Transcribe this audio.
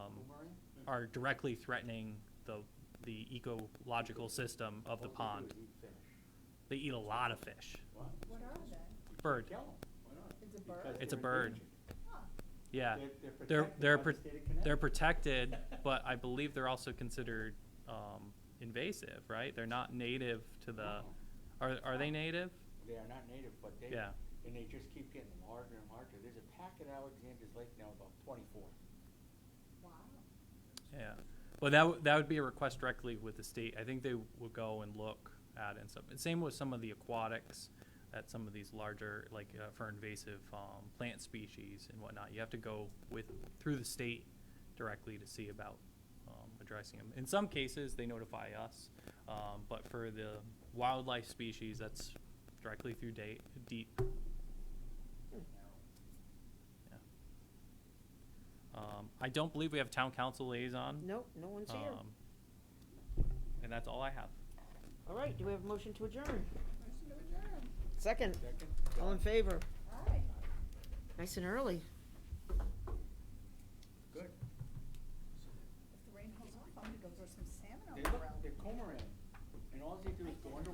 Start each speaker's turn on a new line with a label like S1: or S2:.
S1: Um, are directly threatening the, the ecological system of the pond. They eat a lot of fish.
S2: What are they?
S1: Bird,
S2: It's a bird?
S1: It's a bird.
S2: Huh.
S1: yeah.
S3: They're,
S1: they're
S3: they're
S1: pro-
S3: protected by the state of Connecticut.
S1: They're protected, but I believe they're also considered um, invasive, right? They're not native to the,
S3: No.
S1: are, are they native?
S3: They are not native, but they,
S1: Yeah.
S3: and they just keep getting larger and larger. There's a pack at Alexander's Lake now about twenty-four.
S2: Wow.
S1: Yeah. Well, that, would- that would be a request directly with the state. I think they would go and look at it and stuff. And Same with some of the aquatics at some of these larger, like uh, for invasive um, plant species and whatnot. You have to go with, through the state directly to see about um, addressing them. In some cases, they notify us, um, but for the wildlife species, that's directly through date, deep. Yeah. Um, I don't believe we have town council liaison.
S4: Nope, no one's here.
S1: Um, And that's all I have.
S4: All right, do we have a motion to adjourn?
S2: Motion to adjourn.
S4: Second,
S3: Second?
S4: all in
S3: John?
S4: favor?
S2: All right.
S4: Nice and early.